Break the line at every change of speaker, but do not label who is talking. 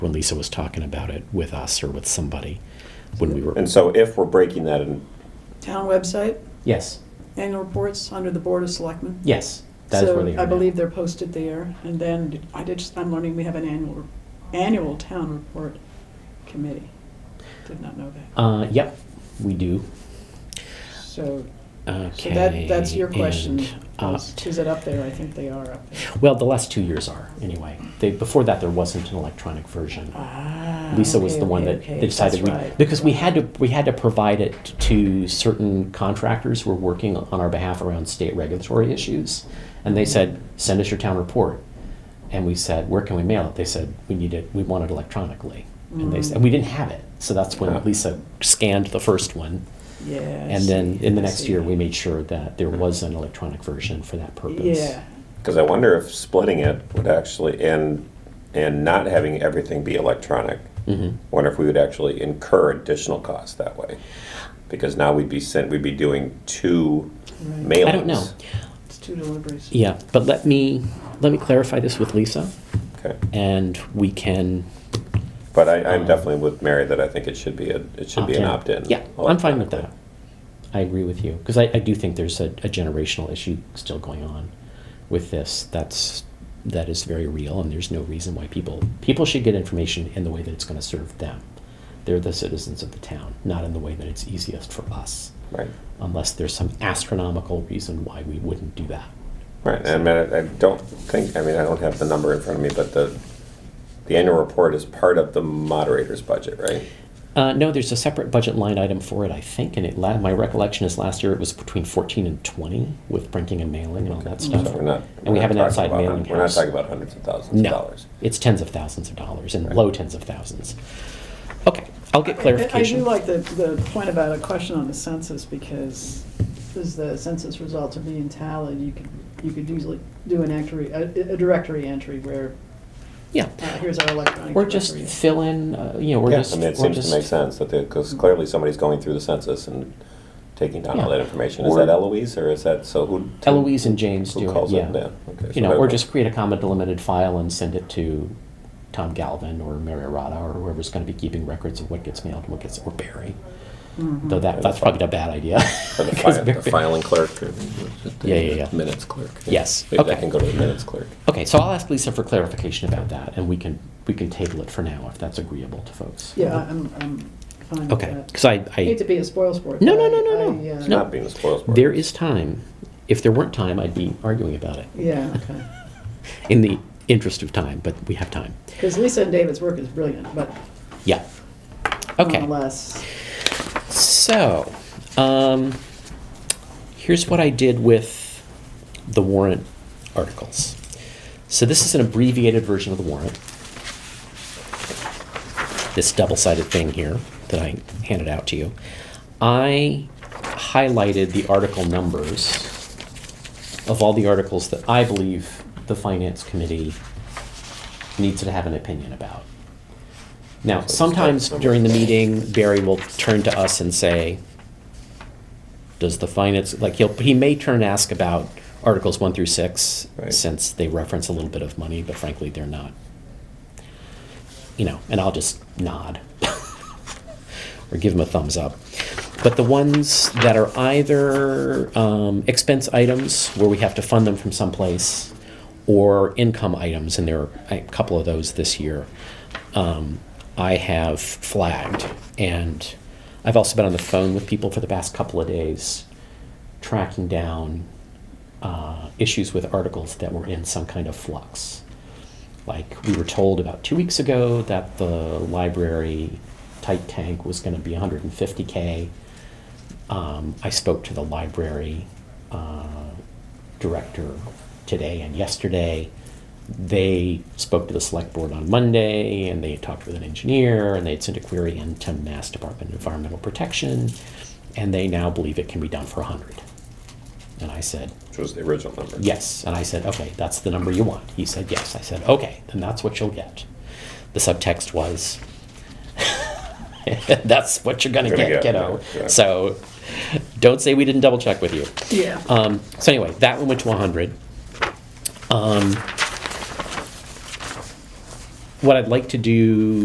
when Lisa was talking about it with us or with somebody when we were.
And so if we're breaking that, and
Town website,
Yes,
annual reports under the Board of Selectmen.
yes, that is where they are.
So I
now.
believe they're posted there, and then I did, just- I'm learning we have an annual, annual town report committee. Did not know that.
Uh, yep, we do.
So, so
Okay.
that, that's your question.
and, uh,
Is is it up there? I think they are up there.
well, the last two years are anyway. They, before that, there wasn't an electronic version.
Ah.
Lisa was
okay,
the one
okay,
that
okay.
that decided
That's
we,
right.
because we had to, we had to provide it to certain contractors who were working on our behalf around state regulatory issues. And
Mm-hmm.
they said, send us your town report. And we said, where can we mail it? They said, we need it, we want it electronically. And they said, and we didn't have it. So that's when Lisa scanned the first one.
Yes.
And then in the next year, we made sure that there was an electronic version for that purpose.
Yeah,
because I wonder if splitting it would actually, and, and not having everything be electronic,
Mm-hmm.
I wonder if we would actually incur additional costs that way. Because now we'd be sent, we'd be doing two mailings.
I don't know.
it's two deliveries.
Yeah, but let me, let me clarify this with Lisa
Okay,
and we can
but I, I'm definitely with Mary that I think it should be a, it should be an opt-in.
Um, Yeah, I'm fine with that. I agree with you because I, I do think there's a, a generational issue still going on with this. That's that is very real, and there's no reason why people people should get information in the way that it's going to serve them. They're the citizens of the town, not in the way that it's easiest for us,
Right,
unless there's some astronomical reason why we wouldn't do that.
right, and I mean, I I don't think, I mean, I don't have the number in front of me, but the, the annual report is part of the moderator's budget, right?
Uh, no, there's a separate budget line item for it, I think, and it la- my recollection is last year it was between 14 and 20 with printing and mailing and all that stuff.
So we're not.
And
we're
we
not
have an
talking
outside
about hun-
mailing
We're not
house.
talking about hundreds of thousands of
No,
dollars.
it's tens of thousands of dollars and low tens of thousands. Okay, I'll get clarification.
I do like the, the point about a question on the census, because as the census results are being tallied, you could, you could easily do an entry, a, a directory entry where,
yeah,
uh, here's our electronic
or just
directory.
fill in. Uh, you know, or
Yeah,
just
I mean, it
or
seems
just Mm.
to make sense that, because clearly somebody's going through the census and taking down all
Yeah.
that information. Is
Or-
that Eloise or is that, so who?
Eloise and James
Who
do
calls
it.
it?
Yeah,
Yeah, okay, so
you know,
that
or
works.
just create a comma delimited file and send it to Tom Galvin or Mary Arata or whoever's going to be keeping records of what gets mailed and what gets or Barry.
Mm-hmm.
Though that that's probably a bad idea.
Or the
'Cause
fi- the
Barry-
filing clerk? or-
Yeah, yeah, yeah.
Minutes clerk.
Yes,
Maybe
okay.
that can go to the minutes clerk.
Okay, so I'll ask Lisa for clarification about that, and we can we can table it for now if that's agreeable to folks.
Yeah, I- I'm, I'm fine with
Okay,
that.
because I, I
Hate to be a spoilsport.
No, no,
but I-
no, no, no.
I, uh,
It's
No.
not being a spoilsport.
There is time. If there weren't time, I'd be arguing about it
Yeah, okay.
in the interest of time, but we have time.
Because Lisa and David's work is brilliant, but
Yeah. Okay.
nonetheless,
So, um, here's what I did with the warrant articles. So, this is an abbreviated version of the warrant. This double sided thing here that I handed out to you. I highlighted the article numbers of all the articles that I believe the Finance Committee needs to have an opinion about. Now, sometimes during the meeting, Barry will turn to us and say, does the finance, like, he'll, he may turn and ask about Articles one through six,
Right.
since they reference a little bit of money, but frankly, they're not. You know, and I'll just nod or give him a thumbs up. But the ones that are either um, expense items where we have to fund them from someplace or income items, and there are a couple of those this year, um, I have flagged. And I've also been on the phone with people for the past couple of days tracking down uh, issues with articles that were in some kind of flux. Like we were told about two weeks ago that the library tight tank was going to be 150k. Um, I spoke to the library uh, director today and yesterday. They spoke to the select board on Monday, and they talked with an engineer, and they had sent a query in to Mass Department of Environmental Protection, and they now believe it can be done for 100. And I said,
Which was the original number.
Yes. And I said, okay, that's the number you want. He said, yes. I said, okay, then that's what you'll get. The subtext was, that's what you're going to
Gonna
get,
get,
kiddo.
yeah, yeah.
So don't say we didn't double check with you.
yeah.
Um, so anyway, that one went to 100. Um, what I'd like to do